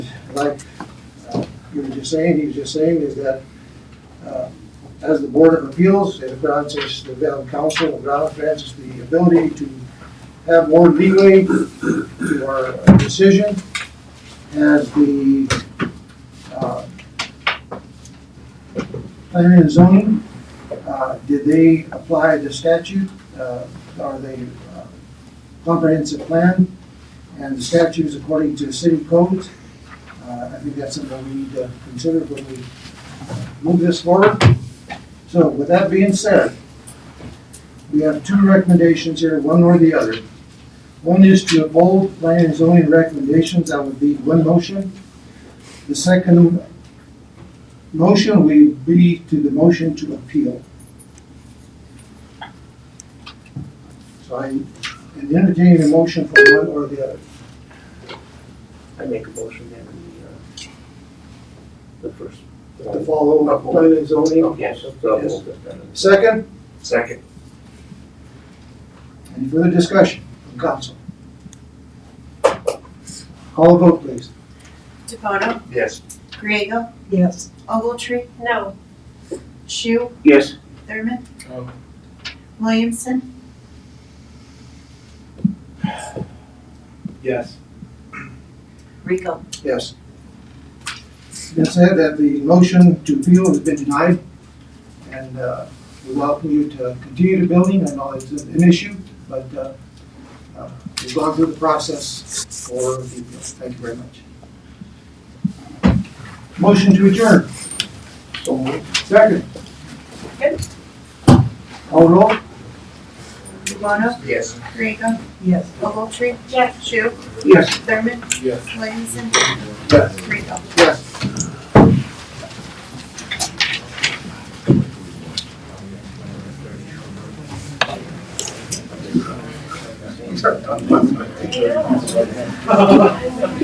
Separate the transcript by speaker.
Speaker 1: like uh, you were just saying, he was just saying, is that uh, as the Board of Appeals, it grants us, the Valley Council grants us the ability to have more leeway to our decision as the uh, planning and zoning, uh, did they apply the statute, uh, or the uh, comprehensive plan and the statutes according to city codes? Uh, I think that's something we need to consider when we move this forward. So with that being said, we have two recommendations here, one or the other. One is to uphold planning and zoning recommendations, that would be one motion. The second motion would be to the motion to appeal. So I am entertaining a motion for one or the other.
Speaker 2: I make a motion that we, uh, the first.
Speaker 1: To follow up planning and zoning.
Speaker 2: Yes.
Speaker 1: Yes. Second,
Speaker 2: Second.
Speaker 1: any further discussion from council? Call a vote, please.
Speaker 3: DePoto,
Speaker 2: Yes.
Speaker 3: Griego,
Speaker 4: Yes.
Speaker 3: Ogletree. No. Shu,
Speaker 2: Yes.
Speaker 3: Thurman.
Speaker 2: No.
Speaker 3: Williamson,
Speaker 2: Yes.
Speaker 3: Rico.
Speaker 1: Yes. It said that the motion to appeal has been denied, and uh, we welcome you to continue the building. I know it's an issue, but uh, uh, we've gone through the process for the appeal. Thank you very much. Motion to adjourn. Second.
Speaker 3: Good.
Speaker 1: Call roll?
Speaker 3: DePoto,
Speaker 2: Yes.
Speaker 3: Griego,
Speaker 4: Yes.
Speaker 3: Ogletree. Yes. Shu,
Speaker 1: Yes.
Speaker 3: Thurman,
Speaker 2: Yes.
Speaker 3: Williamson,
Speaker 1: Yes.
Speaker 3: Rico.
Speaker 1: Yes.